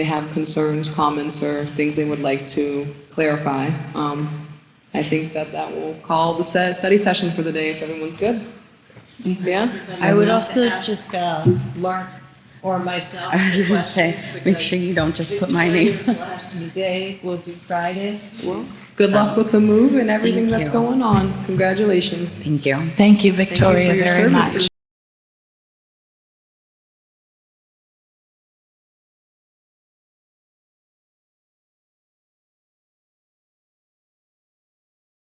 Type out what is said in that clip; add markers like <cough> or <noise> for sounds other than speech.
they have concerns, comments, or things they would like to clarify. Um, I think that that will call the se- study session for the day if everyone's good. Yeah? I would also ask, just- uh, Mark or myself. <laughs> I was gonna say, questions make sure you don't just put my name. because Last day will be Friday. Well, good luck with the move and everything that's Thank you. going on. Congratulations. Thank you. Thank you, Thank you for Victoria, your very much. services.